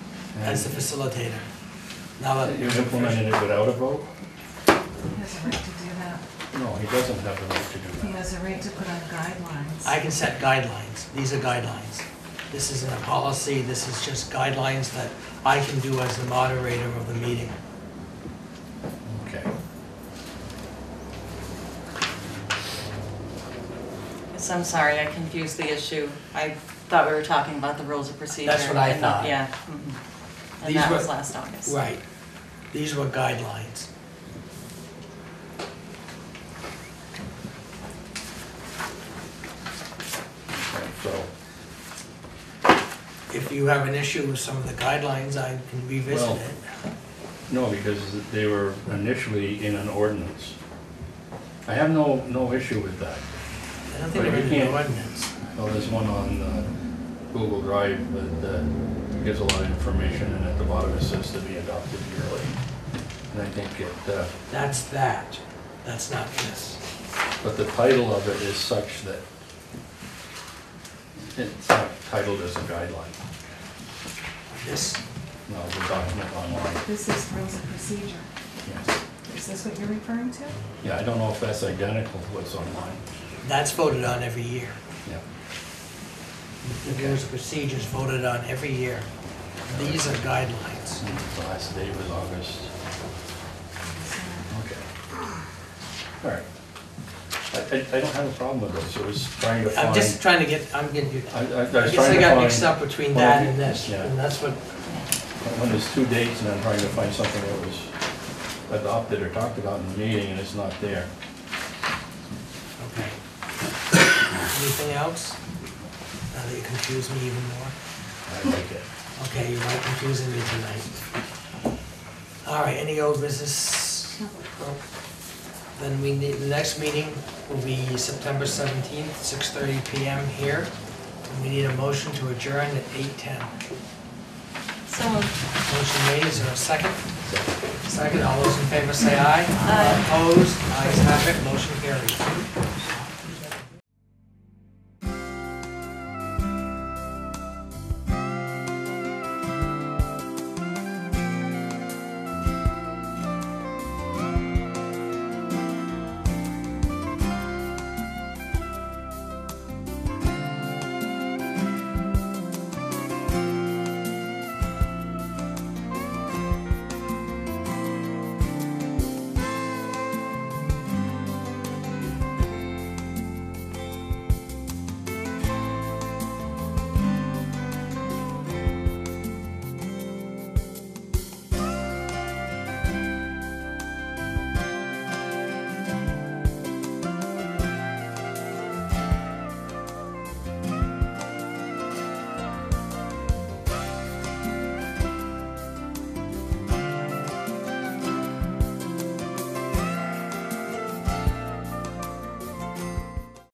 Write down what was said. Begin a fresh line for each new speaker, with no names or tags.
as the facilitator. Now,
You implemented it without a vote?
He has a right to do that.
No, he doesn't have the right to
He
do that.
has a right to put on guidelines.
I can set guidelines, these are guidelines. This isn't a policy, this is just guidelines that I can do as the moderator of the meeting.
Okay.
Yes, I'm sorry, I confused the issue. I thought we were talking about the rules of procedure.
That's what I
and not-
thought.
Yeah. mhm.
These
And that
were-
was last August.
Right, these were guidelines.
Okay, So,
If you have an issue with some of the guidelines, I can revisit
Well-
it.
no, because they were initially in an ordinance. I have no, no issue with that.
I don't think
But
we're
you
in the
can't-
ordinance.
Well, there's one on uh, Google Drive that uh, gives a lot of information, and at the bottom it says to be adopted yearly. And I think it, uh,
That's that, that's not this.
but the title of it is such that it's not titled as a guideline,
This,
no, the document online.
This is rules of procedure.
Yes.
Is this what you're referring to?
Yeah, I don't know if that's identical to what's online.
that's voted on every year.
Yeah.
The rules of procedures voted on every year. These are guidelines.
The last day was August. Okay. All right. I, I I don't have a problem with this, I was trying to find.
I'm just trying to get, I'm getting you.
I- I- I was
I guess
trying
I
to
got
find-
mixed up between
Well,
that
you-
and this,
yeah.
and that's what,
When there's two dates and I'm trying to find something that was adopted or talked about in the meeting and it's not there.
okay. Anything else? Now that you confuse me even more.
I like it.
Okay, you are confusing me tonight. All right, any old business? Then we need, the next meeting will be September seventeenth, six thirty PM here. And we need a motion to adjourn at eight ten.
So,
Motion made, is there a second? Second, all those in favor say aye. Opposed, ayes have it, motion carries.